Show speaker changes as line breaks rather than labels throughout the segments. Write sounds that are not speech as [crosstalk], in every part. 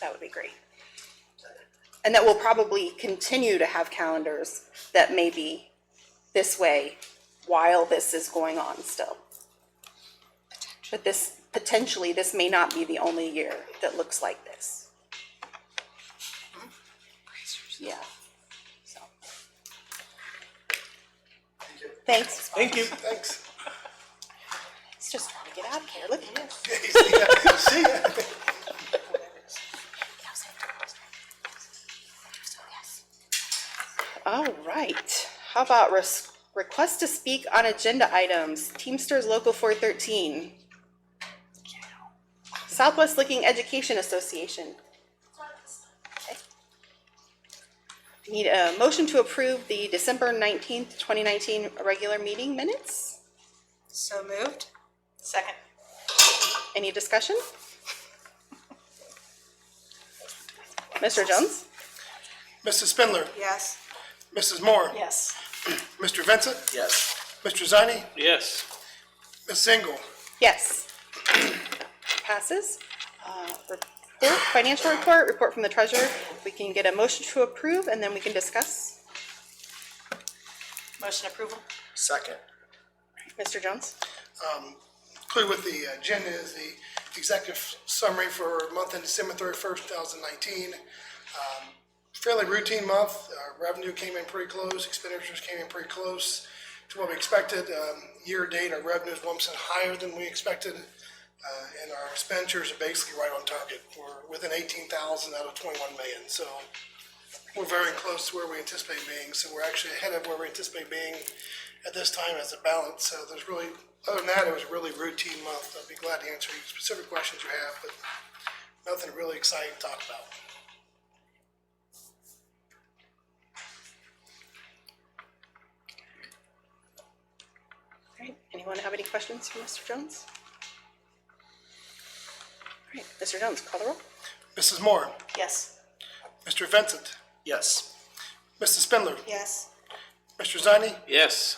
that would be great. And that we'll probably continue to have calendars that may be this way while this is going on still. But this, potentially, this may not be the only year that looks like this. Yeah. So. Thanks.
Thank you. [laughs] Thanks.
It's just trying to get out of here. Look at this.
See ya.
All right. How about res- request to speak on agenda items? Teamsters Local 413. Southwest Looking Education Association. Okay. Need a motion to approve the December 19th, 2019 regular meeting minutes?
So moved. Second.
Any discussion? Mr. Jones?
Mrs. Spindler,
Yes.
Mrs. Moore,
Yes.
Mr. Vincent,
Yes.
Mr. Zani,
Yes.
Ms. Engel.
Yes. Passes. Uh, Report, financial report, report from the treasurer. We can get a motion to approve and then we can discuss.
Motion approval?
Second.
Mr. Jones?
Clear with the agenda is the executive summary for month end December thirty-first, two thousand nineteen. Um, Fairly routine month, Uh, revenue came in pretty close, expenditures came in pretty close to what we expected. Um, Year to date, our revenue is one percent higher than we expected, uh, and our expenditures are basically right on target. We're within eighteen thousand out of twenty-one million, so we're very close to where we anticipate being, so we're actually ahead of where we anticipate being at this time as a balance. So there's really, other than that, it was a really routine month. I'd be glad to answer any specific questions you have, but nothing really exciting to talk about.
All right, anyone have any questions for Mr. Jones? All right, Mr. Jones, call the roll.
Mrs. Moore,
Yes.
Mr. Vincent,
Yes.
Mrs. Spindler,
Yes.
Mr. Zani,
Yes.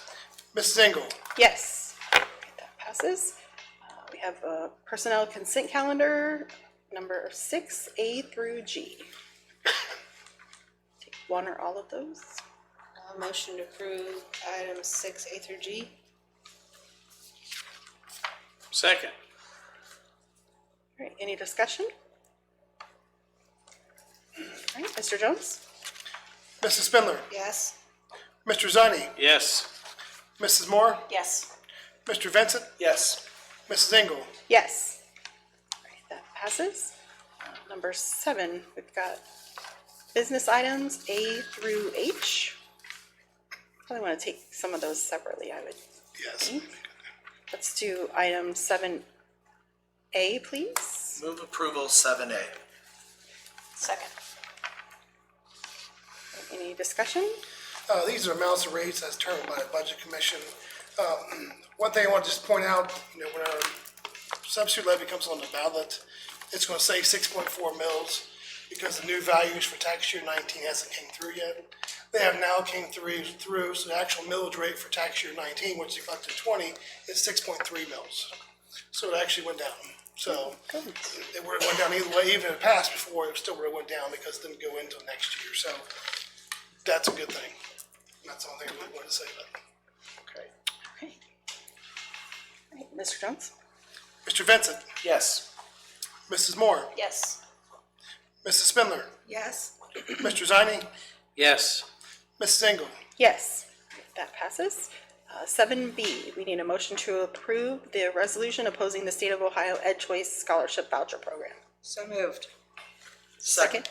Mrs. Engel.
Yes. Alright, That passes. Uh, We have a personnel consent calendar, number six, A through G. Take One or all of those?
Uh, motion to approve items six A through G?
Second.
All right, any discussion? All right, Mr. Jones?
Mrs. Spindler,
Yes.
Mr. Zani,
Yes.
Mrs. Moore,
Yes.
Mr. Vincent,
Yes.
Mrs. Engel.
Yes. All right, that passes. Uh, Number seven, we've got business items A through H. Probably want to take some of those separately, I would.
Yes.
Let's do item seven A, please.
Move approval seven A.
Second.
Any discussion?
Uh, these are amounts and rates as determined by the Budget Commission. Um, [clears throat] One thing I want to just point out, you know, when our substitute levy comes on the ballot, it's gonna say six point four mils because the new values for tax year nineteen hasn't came through yet. They have now came through, through, so the actual millage rate for tax year nineteen, which is collected twenty, is six point three mils. So it actually went down. So it would have went down either way, even if it passed before, it still would have went down because it didn't go into next year. So that's a good thing. That's all I really wanted to say about it.
Okay.
Okay. All right, Mr. Jones?
Mr. Vincent,
Yes.
Mrs. Moore,
Yes.
Mrs. Spindler, [clears throat]
Yes.
Mr. Zani,
Yes.
Mrs. Engel.
Yes, that passes. Uh, Seven B, we need a motion to approve the resolution opposing the State of Ohio Ed Choice Scholarship Voucher Program.
So moved.
Second.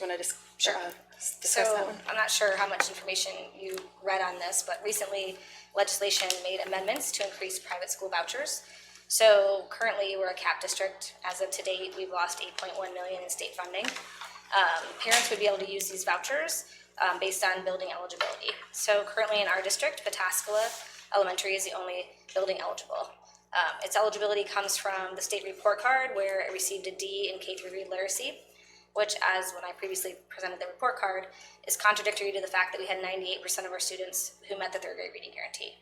Want to just, uh, discuss that
So,
one?
I'm not sure how much information you read on this, but recently legislation made amendments to increase private school vouchers. So currently, we're a cap district. As of today, we've lost eight point one million in state funding. Um, parents would be able to use these vouchers, um, based on building eligibility. So currently in our district, Pataskala Elementary is the only building eligible. Um, its eligibility comes from the state report card where it received a D in K through read literacy which as when I previously presented the report card, is contradictory to the fact that we had ninety-eight percent of our students who met the third grade reading guarantee.